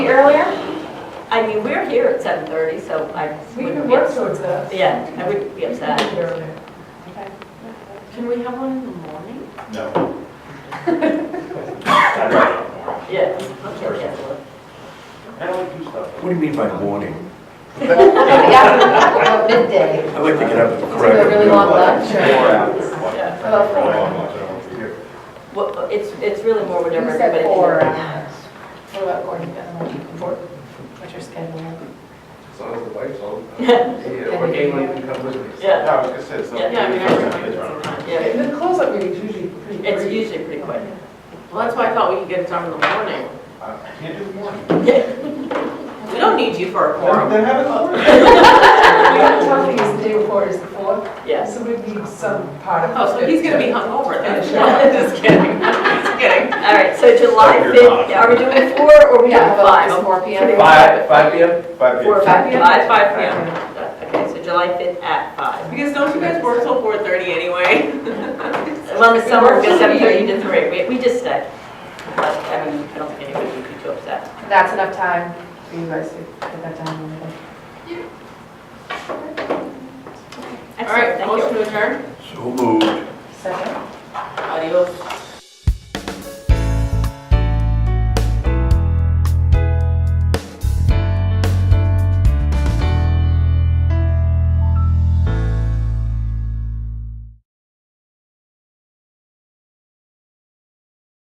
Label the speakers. Speaker 1: I mean, we're here at 7:30, so I
Speaker 2: We can
Speaker 1: wouldn't be
Speaker 2: work
Speaker 1: upset.
Speaker 2: towards that.
Speaker 1: Yeah, I wouldn't be
Speaker 2: We can
Speaker 1: upset.
Speaker 2: get there.
Speaker 3: Can we have one in the morning?
Speaker 4: No. I'd rather not worry.
Speaker 1: Yeah, I'll get that one.
Speaker 4: I don't do stuff.
Speaker 5: What do you mean by morning?
Speaker 6: Yeah, about midday.
Speaker 5: I like to get up at the
Speaker 6: Do a
Speaker 5: correct.
Speaker 6: really long lunch.
Speaker 4: Or after one.
Speaker 1: Yeah.
Speaker 6: About
Speaker 4: Or
Speaker 6: four.
Speaker 4: one month, I don't want to be here.
Speaker 1: Well, it's, it's really more whatever
Speaker 6: You said
Speaker 1: everybody
Speaker 6: four
Speaker 1: can.
Speaker 6: hours.
Speaker 2: What about Gordon, you got the one for, what's your schedule?
Speaker 7: As long as the lights on. Yeah, or anyone can come with me.
Speaker 1: Yeah.
Speaker 4: No, I was gonna say, so.
Speaker 1: Yeah,
Speaker 3: Yeah, I mean, I
Speaker 4: Yeah, it's around.
Speaker 3: time.
Speaker 1: Yeah,
Speaker 2: The close-up meeting is usually pretty brief.
Speaker 1: it's usually pretty quick.
Speaker 3: Well, that's why I thought we could get it done in the morning.
Speaker 4: I I can't do the morning.
Speaker 3: We don't need you for a
Speaker 4: Then
Speaker 3: quorum.
Speaker 4: then have it morning.
Speaker 2: The other tough thing is the day before is the fourth,
Speaker 1: Yes.
Speaker 2: so we need some part of.
Speaker 3: Oh, so he's gonna be hungover then.
Speaker 2: Finish it
Speaker 3: No, Just kidding, just kidding.
Speaker 1: All right, so July
Speaker 4: You're
Speaker 1: 5th,
Speaker 4: not.
Speaker 1: are we doing four or we
Speaker 6: Yeah,
Speaker 1: have
Speaker 6: about
Speaker 1: five?
Speaker 6: this four P M.
Speaker 7: Five, five PM?
Speaker 4: Five
Speaker 1: Four,
Speaker 4: years.
Speaker 1: five,
Speaker 6: Five
Speaker 1: five, five p.m. Okay, so July 5th at five.
Speaker 3: Because don't you guys work till four thirty anyway?
Speaker 1: Well, in the summer, we go
Speaker 6: Works for me.
Speaker 1: 7:30 to 3. We- We just stay. But, I mean, I don't think anybody would be too upset.
Speaker 6: That's enough time for you guys to put that down. on the-
Speaker 3: All right,
Speaker 1: Excellent, thank you.
Speaker 3: motion to adjourn.
Speaker 5: So moved.
Speaker 6: Second.
Speaker 3: Adios.